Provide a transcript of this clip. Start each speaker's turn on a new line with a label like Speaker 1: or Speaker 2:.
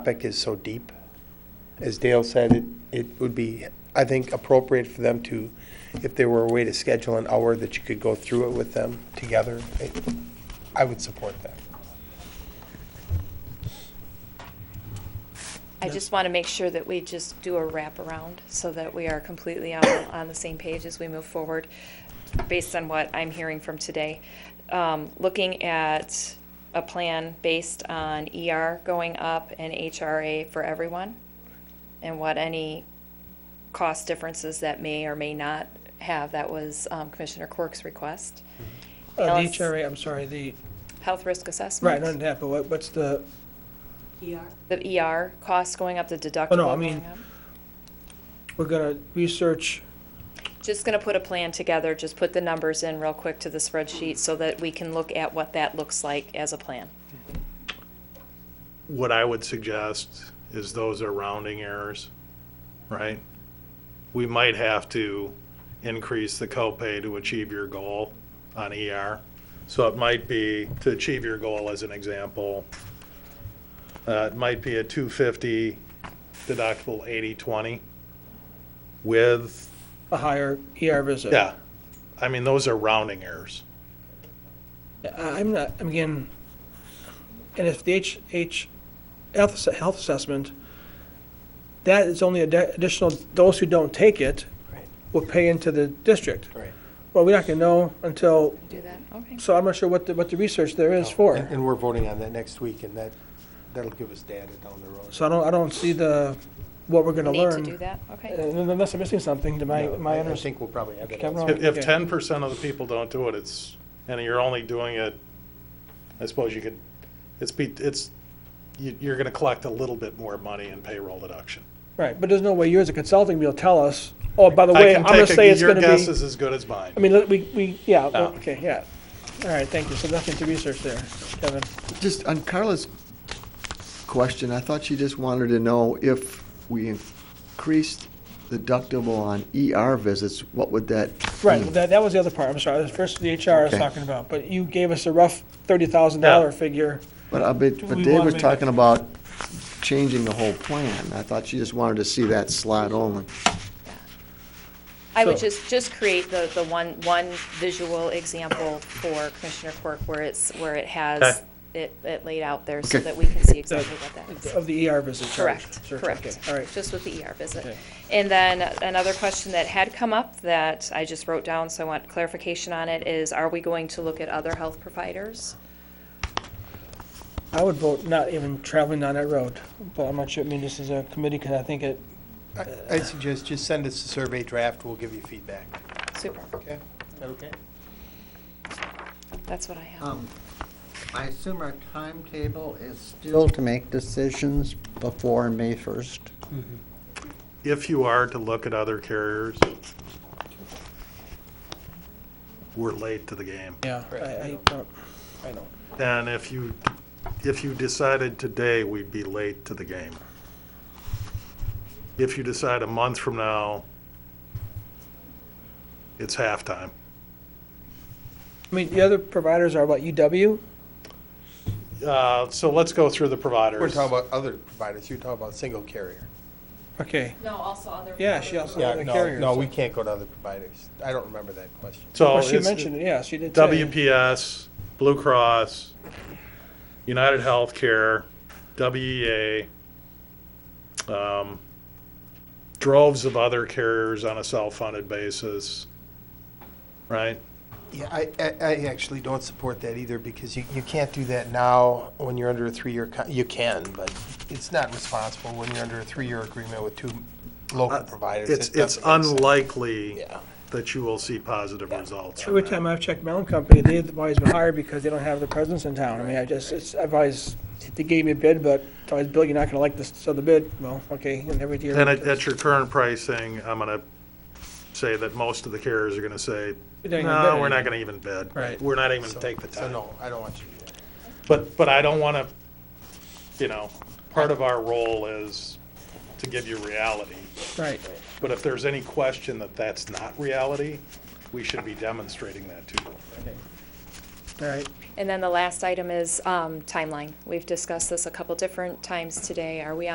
Speaker 1: topic is so deep. As Dale said, it, it would be, I think, appropriate for them to, if there were a way to schedule an hour that you could go through it with them together, I- I would support that.
Speaker 2: I just want to make sure that we just do a wraparound so that we are completely on, on the same page as we move forward, based on what I'm hearing from today. Um, Looking at a plan based on ER going up and HRA for everyone, and what any cost differences that may or may not have, that was um, Commissioner Quirk's request.
Speaker 3: Uh, The
Speaker 2: Alice-
Speaker 3: HRA, I'm sorry, the,
Speaker 2: Health risk
Speaker 3: right,
Speaker 2: assessment.
Speaker 3: not that, but what- what's the,
Speaker 2: The ER costs going up, the deductible
Speaker 3: Oh, I
Speaker 2: going
Speaker 3: mean-
Speaker 2: up.
Speaker 3: we're going to research,
Speaker 2: Just going to put a plan together, just put the numbers in real quick to the spreadsheet so that we can look at what that looks like as a plan.
Speaker 4: what I would suggest is those are rounding errors, right? We might have to increase the copay to achieve your goal on ER. So it might be, to achieve your goal as an example, uh, it might be a 250 deductible 80/20 with,
Speaker 3: a higher ER visit.
Speaker 4: yeah, I mean, those are rounding errors.
Speaker 3: I- I'm not, I'm again, and if the H, H, health, ass- health assessment, that is only addi- additional, those who don't take it
Speaker 1: Right.
Speaker 3: will pay into the district.
Speaker 1: Right.
Speaker 3: Well, we're not going to know until,
Speaker 2: Do that, okay.
Speaker 3: so I'm not sure what the, what the research there is for.
Speaker 1: And we're voting on that next week, and that, that'll give us data down the road.
Speaker 3: So I don't, I don't see the, what we're going to
Speaker 2: Need
Speaker 3: learn.
Speaker 2: to do that, okay.
Speaker 3: Uh, Unless I'm missing something to my,
Speaker 1: No,
Speaker 3: my
Speaker 1: I- I
Speaker 3: understanding.
Speaker 1: think we'll probably have that
Speaker 3: Okay, I'm
Speaker 1: answer.
Speaker 3: wrong.
Speaker 4: If
Speaker 3: Oh, Yeah.
Speaker 4: ten percent of the people don't do it, it's, and you're only doing it, I suppose you could, it's be, it's, you, you're gonna collect a little bit more money in payroll deduction.
Speaker 3: Right, but there's no way you as a consulting will tell us, oh, by the
Speaker 4: I
Speaker 3: way, I'm
Speaker 4: can
Speaker 3: gonna
Speaker 4: take
Speaker 3: say
Speaker 4: a
Speaker 3: it's
Speaker 4: Your
Speaker 3: gonna
Speaker 4: guess
Speaker 3: be,
Speaker 4: is as good as mine.
Speaker 3: I mean, let- we, we, yeah, well,
Speaker 4: No.
Speaker 3: okay, yeah. All right, thank you, so nothing to research there, Kevin.
Speaker 5: Just on Carla's question, I thought she just wanted to know if we increased the deductible on ER visits, what would that?
Speaker 3: Right,
Speaker 5: mean?
Speaker 3: well, that, that was the other part, I'm sorry, the first the HR I was
Speaker 5: Hmm. Okay.
Speaker 3: talking about, but you gave us a rough thirty thousand dollar
Speaker 4: Yeah.
Speaker 3: figure.
Speaker 5: But I bet, but
Speaker 3: we
Speaker 5: Dave
Speaker 3: wanna
Speaker 5: was
Speaker 3: make
Speaker 5: talking about changing the whole plan. I thought she just wanted to see that slide only.
Speaker 2: I would
Speaker 3: So-
Speaker 2: just, just create the, the one, one visual example for Commissioner Quirk where it's, where it has
Speaker 4: Okay.
Speaker 2: it, it laid out there so
Speaker 5: Okay.
Speaker 2: that we can see exactly what that is.
Speaker 3: Of the ER visit charge.
Speaker 2: Correct,
Speaker 3: Sure,
Speaker 2: correct.
Speaker 3: okay, All right,
Speaker 2: Just with the ER visit.
Speaker 3: Okay.
Speaker 2: And then another question that had come up that I just wrote down, so I want clarification on it, is are we going to look at other health providers?
Speaker 3: I would vote not even traveling down that road, but I'm not sure, I mean, this is a committee, because I think it,
Speaker 1: I I'd suggest just send us a survey draft, we'll give you feedback.
Speaker 2: Super,
Speaker 1: Okay? Is that okay?
Speaker 2: that's what I have.
Speaker 6: Um, I assume our timetable is still to make decisions before May 1st.
Speaker 4: If you are to look at other carriers, we're late to the game.
Speaker 3: yeah, I, I don't, I don't.
Speaker 4: And if you, if you decided today, we'd be late to the game. If you decide a month from now, it's halftime.
Speaker 3: I mean, the other providers are what, UW?
Speaker 4: Uh, So let's go through the providers.
Speaker 1: We're talking about other providers, you're talking about single carrier.
Speaker 3: Okay,
Speaker 2: No, also other.
Speaker 3: yeah, she also,
Speaker 1: Yeah,
Speaker 3: the
Speaker 1: no,
Speaker 3: carriers.
Speaker 1: no, we can't go to other providers. I don't remember that question.
Speaker 4: So
Speaker 3: Well, she
Speaker 4: it's
Speaker 3: mentioned it, yeah, she did say.
Speaker 4: WPS, Blue Cross, United Healthcare, WEA, um, droves of other carriers on a self-funded basis, right?
Speaker 1: Yeah, I, I, I actually don't support that either, because you, you can't do that now when you're under a three-year, con- you can, but it's not responsible when you're under a three-year agreement with two local providers.
Speaker 4: Uh, It's,
Speaker 1: It
Speaker 4: it's
Speaker 1: doesn't make sense.
Speaker 4: unlikely
Speaker 1: Yeah.
Speaker 4: that you will see positive results from
Speaker 3: Every
Speaker 4: that.
Speaker 3: time I've checked my own company, they've always been hired because they don't have the presence in town. I mean, I just, it's, I've always, they gave me a bid, but it's always, Bill, you're not gonna like this, so the bid, well, okay, and every year.
Speaker 4: And at, at your current pricing, I'm gonna say that most of the carriers are gonna say,
Speaker 3: It ain't gonna
Speaker 4: no,
Speaker 3: bid
Speaker 4: we're not gonna even bid.
Speaker 3: Right.
Speaker 4: We're not even
Speaker 1: So-
Speaker 4: gonna take the time.
Speaker 1: So no, I don't want you to do that.
Speaker 4: But, but I don't want to, you know, part of our role is to give you reality.
Speaker 3: Right,
Speaker 4: But if there's any question that that's not reality, we should be demonstrating that to you.
Speaker 3: All right.
Speaker 2: And then the last item is um, timeline. We've discussed this a couple different times today. Are we